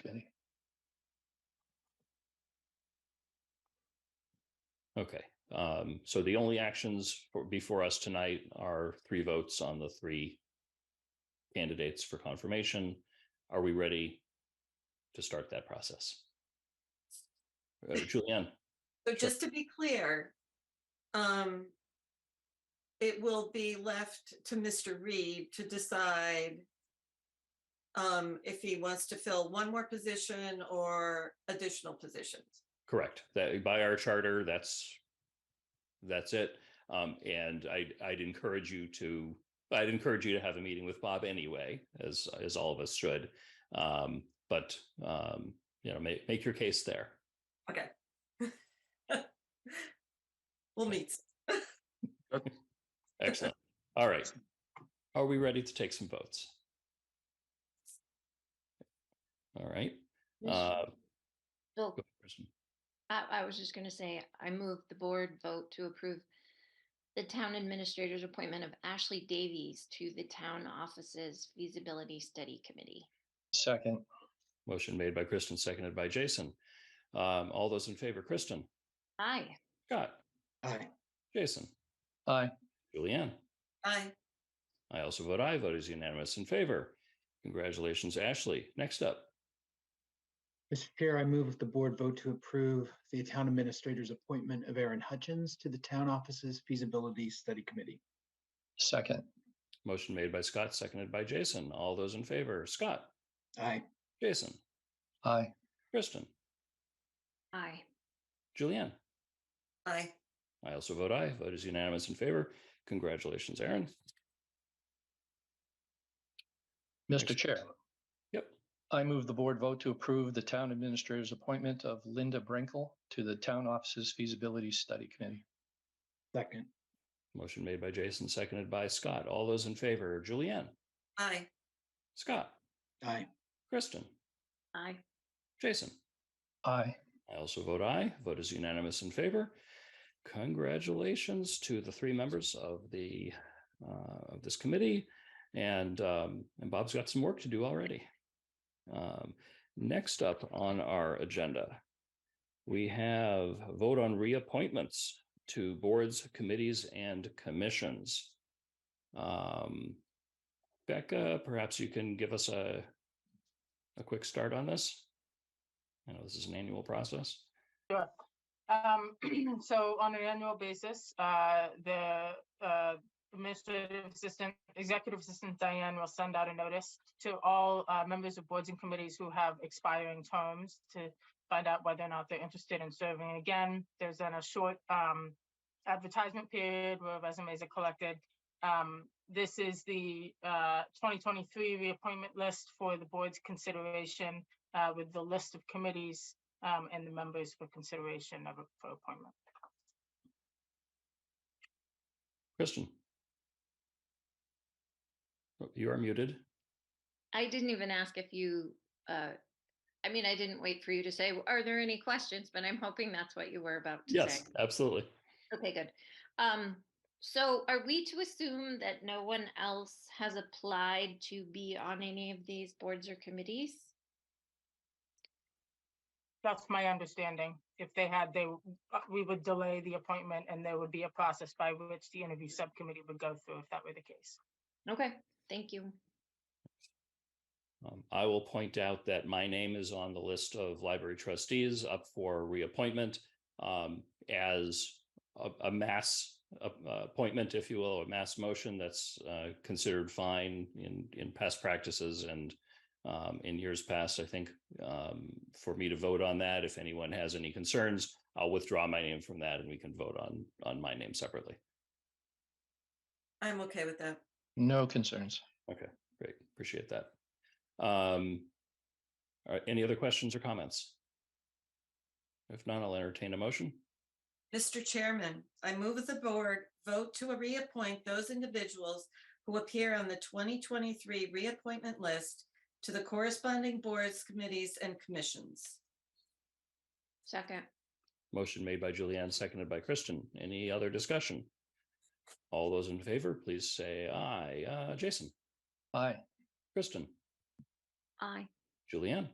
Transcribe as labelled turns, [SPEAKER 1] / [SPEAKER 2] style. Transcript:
[SPEAKER 1] committee. Okay, um, so the only actions for- before us tonight are three votes on the three candidates for confirmation. Are we ready to start that process? Uh, Julianne,
[SPEAKER 2] So just to be clear, um, it will be left to Mr. Reed to decide um, if he wants to fill one more position or additional positions.
[SPEAKER 1] correct, that by our charter, that's that's it. Um, and I, I'd encourage you to, I'd encourage you to have a meeting with Bob anyway, as, as all of us should. Um, but, um, you know, make, make your case there.
[SPEAKER 2] We'll meet.
[SPEAKER 1] Excellent. All right. Are we ready to take some votes? All right.
[SPEAKER 3] Mr.
[SPEAKER 1] Uh,
[SPEAKER 3] Bill,
[SPEAKER 1] go, Kristen.
[SPEAKER 3] oh, I, I was just gonna say, I move the board vote to approve the town administrator's appointment of Ashley Davies to the town offices feasibility study committee.
[SPEAKER 4] Second,
[SPEAKER 1] Motion made by Kristen, seconded by Jason. Um, all those in favor, Kristen,
[SPEAKER 3] Aye.
[SPEAKER 1] Scott,
[SPEAKER 4] aye.
[SPEAKER 1] Jason,
[SPEAKER 4] Aye.
[SPEAKER 1] Julianne.
[SPEAKER 2] Aye.
[SPEAKER 1] I also vote aye. Vote is unanimous in favor. Congratulations, Ashley. Next up,
[SPEAKER 4] Mr. Chair, I move the board vote to approve the town administrator's appointment of Aaron Hutchins to the town office's feasibility study committee. Second,
[SPEAKER 1] motion made by Scott, seconded by Jason. All those in favor, Scott,
[SPEAKER 4] aye.
[SPEAKER 1] Jason,
[SPEAKER 4] Aye.
[SPEAKER 1] Kristen,
[SPEAKER 3] Aye.
[SPEAKER 1] Julianne.
[SPEAKER 2] Aye.
[SPEAKER 1] I also vote aye. Vote is unanimous in favor. Congratulations, Aaron.
[SPEAKER 5] Mr. Chair.
[SPEAKER 1] Yep.
[SPEAKER 5] I move the board vote to approve the town administrator's appointment of Linda Brinkle to the town offices feasibility study committee.
[SPEAKER 4] Second,
[SPEAKER 1] Motion made by Jason, seconded by Scott. All those in favor, Julianne,
[SPEAKER 2] Aye.
[SPEAKER 1] Scott,
[SPEAKER 4] aye.
[SPEAKER 1] Kristen,
[SPEAKER 3] Aye.
[SPEAKER 1] Jason.
[SPEAKER 5] Aye.
[SPEAKER 1] I also vote aye. Vote is unanimous in favor. Congratulations to the three members of the uh, of this committee, and um, and Bob's got some work to do already. Um, next up on our agenda, we have a vote on reappointments to boards, committees, and commissions. Um, Becca, perhaps you can give us a a quick start on this. I know this is an annual process.
[SPEAKER 6] Um, so on an annual basis, uh, the, uh, administrative assistant, executive assistant Diane will send out a notice to all, uh, members of boards and committees who have expiring terms to find out whether or not they're interested in serving again. There's then a short, um, advertisement period where resumes are collected. Um, this is the, uh, twenty twenty-three reappointment list for the board's consideration, uh, with the list of committees um, and the members for consideration of, for appointment.
[SPEAKER 1] Kristen? Oh, You are muted.
[SPEAKER 3] I didn't even ask if you, uh, I mean, I didn't wait for you to say, are there any questions? But I'm hoping that's what you were about to say.
[SPEAKER 1] Yes, absolutely.
[SPEAKER 3] Okay, good. Um, so are we to assume that no one else has applied to be on any of these boards or committees?
[SPEAKER 6] That's my understanding. If they had, they, w- uh, we would delay the appointment and there would be a process by which the interview subcommittee would go through if that were the case.
[SPEAKER 3] Okay, thank you.
[SPEAKER 1] Um, I will point out that my name is on the list of library trustees up for reappointment um, as a, a mass uh, appointment, if you will, a mass motion that's uh, considered fine in, in past practices and um, in years past, I think, um, for me to vote on that, if anyone has any concerns, I'll withdraw my name from that and we can vote on, on my name separately.
[SPEAKER 2] I'm okay with that.
[SPEAKER 5] No concerns.
[SPEAKER 1] Great, appreciate that. Um, all right, any other questions or comments? If not, I'll entertain a motion.
[SPEAKER 2] Mr. Chairman, I move that the board vote to reappoint those individuals who appear on the 2023 reappointment list to the corresponding boards, committees, and commissions.
[SPEAKER 3] Second,
[SPEAKER 1] Motion made by Julianne, seconded by Kristen. Any other discussion? All those in favor, please say aye. Uh, Jason,
[SPEAKER 5] Aye.
[SPEAKER 1] Kristen,
[SPEAKER 3] aye.
[SPEAKER 1] Julianne,